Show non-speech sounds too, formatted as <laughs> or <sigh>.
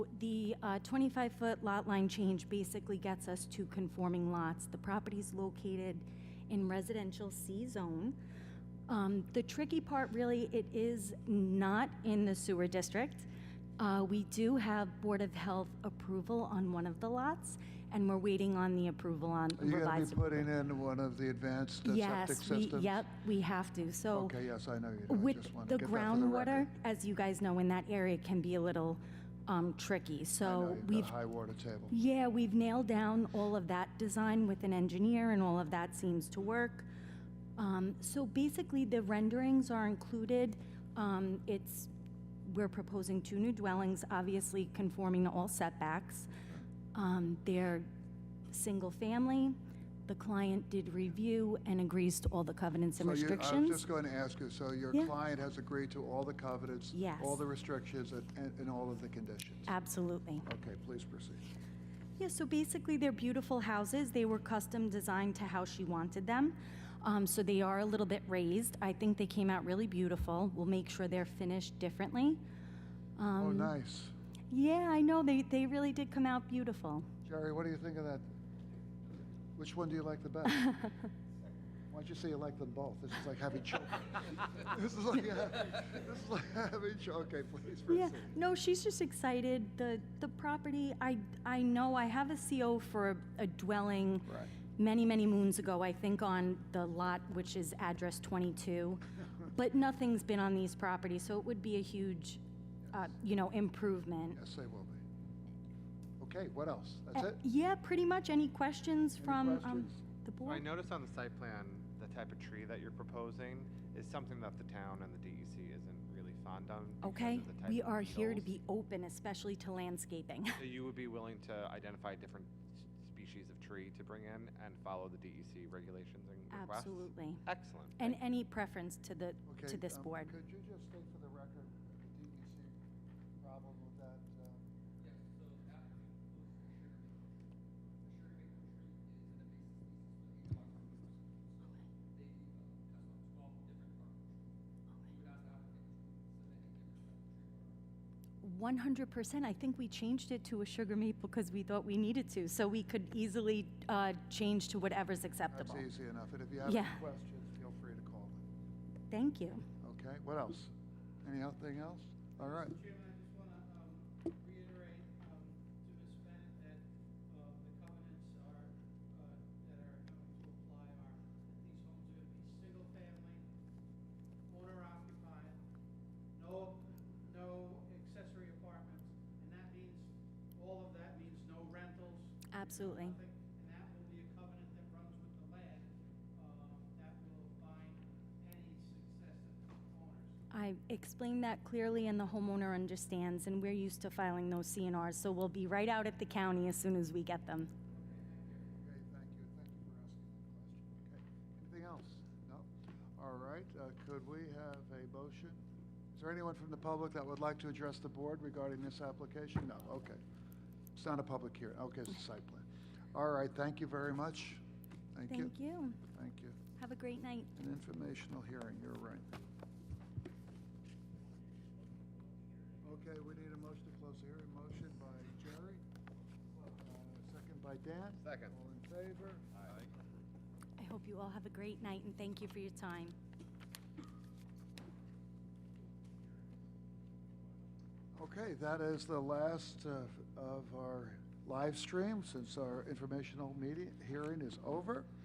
The 25-foot lot line change basically gets us to conforming lots. The property's located in residential C-zone. Um, The tricky part, really, it is not in the sewer district. Uh, We do have Board of Health approval on one of the lots, and we're waiting on the approval on Are you going revised. to be putting in one of the advanced uh, septic Yes, we, systems? yep, we have to, so. Okay, yes, I know you do. I With just wanna the get that for the groundwater, record. as you guys know, in that area can be a little um, tricky, I know so you've got a we've, high water table. yeah, we've nailed down all of that design with an engineer, and all of that seems to work. Um, So basically, the renderings are included. Um, It's, we're proposing two new dwellings, obviously conforming to all setbacks. Um, They're single-family. The client did review and agrees to all the covenants and So you- I was restrictions. just going to ask you, so your Yeah. client has agreed to all the covenants? All Yes. the restrictions and- and, and all of the conditions? Absolutely. Okay, please proceed. Yeah, so basically, they're beautiful houses. They were custom designed to how she wanted them. Um, so they are a little bit raised. I think they came out really beautiful. We'll make sure they're finished differently. Oh, Um, nice. Yeah, I know. They, they really did come out beautiful. Jerry, what do you think of that? Which one do you like <laughs> the best? Why don't you say you like them both? This is like having children. <laughs> This is like, <laughs> ha- this is like having children. Okay, please Yeah, proceed. no, she's just excited. The, the property, I, I know I have a CO for a, a dwelling Right. many, many moons ago, I think on the lot, which is address <laughs> 22, but nothing's been on these properties, so it would be a huge, uh, you know, improvement. Yes, they will be. Okay, what else? That's Uh, it? Yeah, pretty much. Any questions from um, questions? the So I board? noticed on the site plan, the type of tree that you're proposing is something that the town and the DEC isn't really fond on. because of Okay, the type we of are here to beetles. be open, especially to landscaping. <coughs> <laughs> So you would be willing to identify different s- species of tree to bring in and follow the DEC regulations and requests? Absolutely. Excellent. And thank you. any preference to the, to Okay, this um, board? Could you just state for the record the DEC problem with that? uh, One hundred percent. I think we changed it to a sugar maple because we thought we needed to, so we could easily uh, change to whatever's acceptable. That's easy enough, and if you have any Yeah. questions, feel free to call them. Thank you. Okay, what else? Anything else? All right, Chairman, I just want to reiterate um, to Ms. Bennett that uh, the covenants are, uh, that are going to apply are that these homes are going to be single-family, owner-occupied, no, no accessory apartments, and that means, all of that means no rentals, Absolutely. nothing, and that will be a covenant that runs with the land um, that will bind any successive owners. I explained that clearly, and the homeowner understands, and we're used to filing those CNRs, so we'll be right out at the county as soon as we get them. okay, thank you, thank you for asking that question. Okay, anything else? No? All right, uh, could we have a motion? Is there anyone from the public that would like to address the board regarding this application? No, okay. It's not a public hearing, okay, it's a site plan. All right, thank you very much. Thank you. Thank you. Thank you. Have a great night. An informational hearing, you're right. Okay, we need a motion to close the hearing. Motion by Jerry, uh, second by Dan. Second. All in favor? I hope you all have a great night, and thank you for your time. Okay, that is the last uh, of of our live stream since our informational meeting, hearing is over.